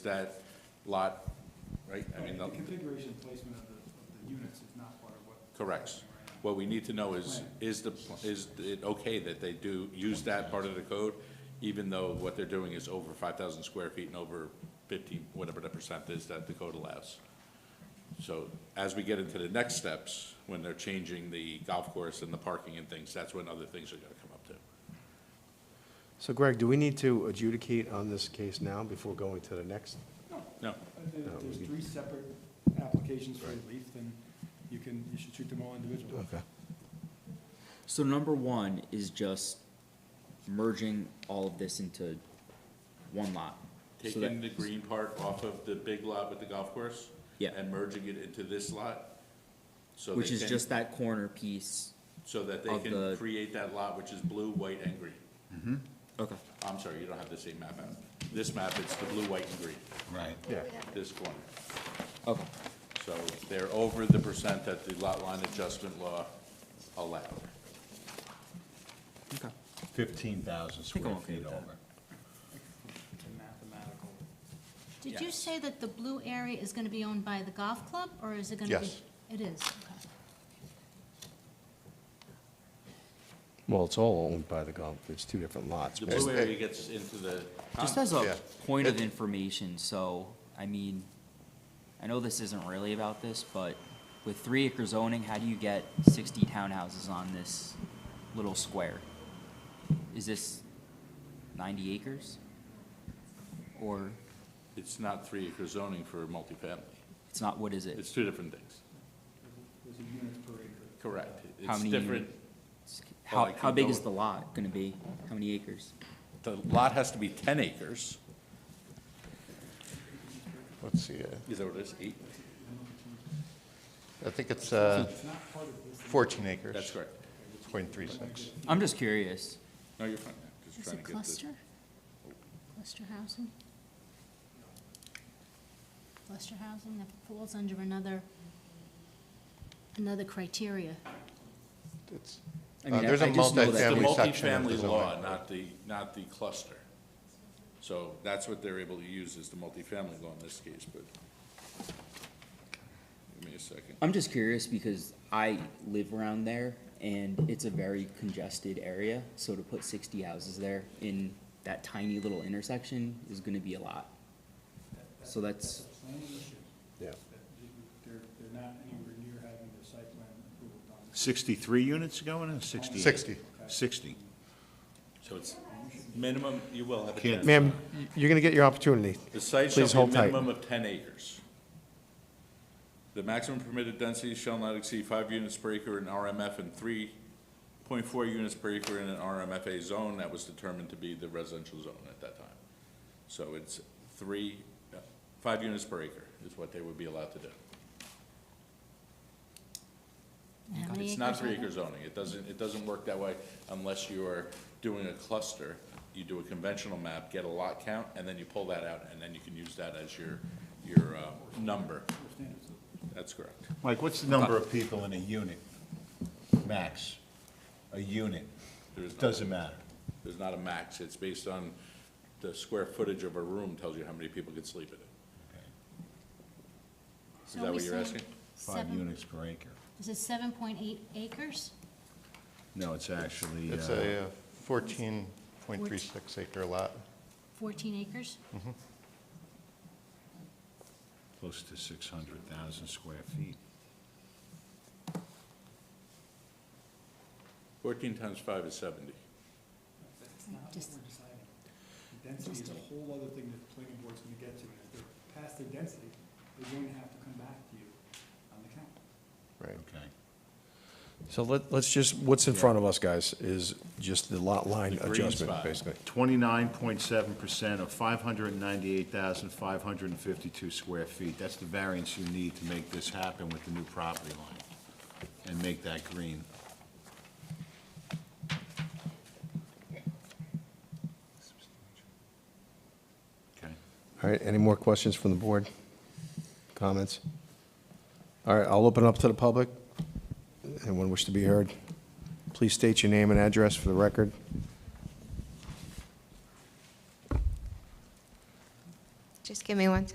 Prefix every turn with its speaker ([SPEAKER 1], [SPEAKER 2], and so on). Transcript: [SPEAKER 1] that lot, right? I mean,
[SPEAKER 2] The
[SPEAKER 1] the-
[SPEAKER 2] configuration placement of the, of the units is not part of what.
[SPEAKER 1] correct. What we need to know is, is the, pl- is it okay that they do use that part of the code, even though what they're doing is over five thousand square feet and over fifty, whatever the percent is that the code allows? So as we get into the next steps, when they're changing the golf course and the parking and things, that's when other things are gonna come up too.
[SPEAKER 3] So Greg, do we need to adjudicate on this case now before going to the next?
[SPEAKER 1] No,
[SPEAKER 2] Uh, there- There's three separate applications for relief, then you can, you should treat them all individually.
[SPEAKER 4] So number one is just merging all of this into one lot. So that-
[SPEAKER 1] taking the green part off of the big lot with the golf course.
[SPEAKER 4] Yeah.
[SPEAKER 1] And merging it into this lot. so
[SPEAKER 4] Which
[SPEAKER 1] they
[SPEAKER 4] is
[SPEAKER 1] can-
[SPEAKER 4] just that corner piece.
[SPEAKER 1] So that they
[SPEAKER 4] of
[SPEAKER 1] can
[SPEAKER 4] the-
[SPEAKER 1] create that lot, which is blue, white, and green.
[SPEAKER 4] Okay.
[SPEAKER 1] I'm sorry, you don't have the same map out. This map, it's the blue, white, and green,
[SPEAKER 5] Right.
[SPEAKER 3] Yeah.
[SPEAKER 1] this corner.
[SPEAKER 4] Okay,
[SPEAKER 1] So they're over the percent that the lot line adjustment law allowed.
[SPEAKER 4] okay.
[SPEAKER 5] Fifteen thousand
[SPEAKER 4] think I'm
[SPEAKER 5] square
[SPEAKER 4] okay
[SPEAKER 5] feet
[SPEAKER 4] with that.
[SPEAKER 5] over.
[SPEAKER 2] It's a mathematical.
[SPEAKER 6] Did you say that the blue area is going to be owned by the golf club, or is it going to be?
[SPEAKER 3] Yes.
[SPEAKER 6] It is, okay.
[SPEAKER 3] Well, it's all owned by the golf, it's two different lots.
[SPEAKER 1] The blue area gets into the,
[SPEAKER 4] Just as a
[SPEAKER 3] Yeah.
[SPEAKER 4] point of information, so, I mean, I know this isn't really about this, but with three acre zoning, how do you get sixty townhouses on this little square? Is this ninety acres? Or
[SPEAKER 1] it's not three acre zoning for multifamily.
[SPEAKER 4] it's not, what is it?
[SPEAKER 1] It's two different things.
[SPEAKER 2] There's a unit per acre.
[SPEAKER 1] Correct.
[SPEAKER 4] How
[SPEAKER 1] It's
[SPEAKER 4] many
[SPEAKER 1] different, Oh, I
[SPEAKER 4] How,
[SPEAKER 1] keep
[SPEAKER 4] how big is the
[SPEAKER 1] going.
[SPEAKER 4] lot gonna be? How many acres?
[SPEAKER 1] the lot has to be ten acres.
[SPEAKER 7] Let's see, uh,
[SPEAKER 1] Is that what it is, eight?
[SPEAKER 7] I think it's uh,
[SPEAKER 2] It's not part of this.
[SPEAKER 7] 14 acres.
[SPEAKER 1] That's correct.
[SPEAKER 7] Point three six.
[SPEAKER 4] I'm just curious.
[SPEAKER 1] No, you're fine. Just
[SPEAKER 6] Is
[SPEAKER 1] trying to
[SPEAKER 6] it
[SPEAKER 1] get Oh. the-
[SPEAKER 6] cluster? Cluster housing? Cluster housing, that falls under another, another criteria.
[SPEAKER 1] Oh
[SPEAKER 7] It's-
[SPEAKER 4] I mean,
[SPEAKER 7] Uh, there's
[SPEAKER 4] I-
[SPEAKER 7] a
[SPEAKER 4] I just know that-
[SPEAKER 1] It's the
[SPEAKER 7] multifamily section of the
[SPEAKER 1] multifamily law,
[SPEAKER 7] zoning.
[SPEAKER 1] not the, not the cluster. So that's what they're able to use is the multifamily law in this case, but. Give me a second.
[SPEAKER 4] I'm just curious because I live around there and it's a very congested area. So to put sixty houses there in that tiny little intersection is gonna be a lot. So that's,
[SPEAKER 2] Planning issue,
[SPEAKER 3] Yeah.
[SPEAKER 2] that they're, they're not anywhere near having their site plan approval done.
[SPEAKER 5] Sixty-three units going in, sixty?
[SPEAKER 7] Sixty.
[SPEAKER 5] Sixty.
[SPEAKER 1] So it's minimum, you will have a
[SPEAKER 5] Can't-
[SPEAKER 1] ten.
[SPEAKER 3] Ma'am, y- you're going to get your opportunity.
[SPEAKER 1] The site
[SPEAKER 3] please
[SPEAKER 1] shall
[SPEAKER 3] hold
[SPEAKER 1] be a
[SPEAKER 3] tight.
[SPEAKER 1] minimum of ten acres. The maximum permitted density shall not exceed five units per acre in RMF and three point four units per acre in an RMFA zone that was determined to be the residential zone at that time. So it's three, uh, five units per acre is what they would be allowed to do.
[SPEAKER 6] How many
[SPEAKER 1] It's not
[SPEAKER 6] acres are
[SPEAKER 1] three
[SPEAKER 6] there?
[SPEAKER 1] acre zoning, it doesn't, it doesn't work that way unless you're doing a cluster. You do a conventional map, get a lot count, and then you pull that out, and then you can use that as your, your, uh, number. That's correct.
[SPEAKER 5] Mike, what's the number of people in a unit, max? A unit,
[SPEAKER 1] There's not,
[SPEAKER 5] doesn't matter.
[SPEAKER 1] there's not a max, it's based on the square footage of a room tells you how many people can sleep in it.
[SPEAKER 6] So
[SPEAKER 1] that
[SPEAKER 6] are we
[SPEAKER 1] what you're
[SPEAKER 6] saying
[SPEAKER 1] asking?
[SPEAKER 5] Five
[SPEAKER 6] seven-
[SPEAKER 5] units per acre.
[SPEAKER 6] Is it seven point eight acres?
[SPEAKER 5] No, it's actually,
[SPEAKER 7] It's
[SPEAKER 5] uh,
[SPEAKER 7] a uh, 14.36 acre lot.
[SPEAKER 6] Fourteen acres?
[SPEAKER 5] close to six hundred thousand square feet.
[SPEAKER 1] Fourteen times five is seventy.
[SPEAKER 2] That's not what
[SPEAKER 6] Just-
[SPEAKER 2] we're deciding. Density is a whole other thing that the planning board's gonna get to, and if they're past their density, they're going to have to come back to you on the count.
[SPEAKER 3] Right.
[SPEAKER 5] Okay.
[SPEAKER 3] So let, let's just, what's in front of us, guys, is just the lot line
[SPEAKER 1] The green
[SPEAKER 3] adjustment,
[SPEAKER 1] spot.
[SPEAKER 3] basically.
[SPEAKER 5] Twenty-nine point seven percent of five hundred and ninety-eight thousand, five hundred and fifty-two square feet. That's the variance you need to make this happen with the new property line and make that green. Okay.
[SPEAKER 3] All right, any more questions from the board? Comments? All right, I'll open up to the public. Anyone wish to be heard? Please state your name and address for the record.
[SPEAKER 8] Just Give me one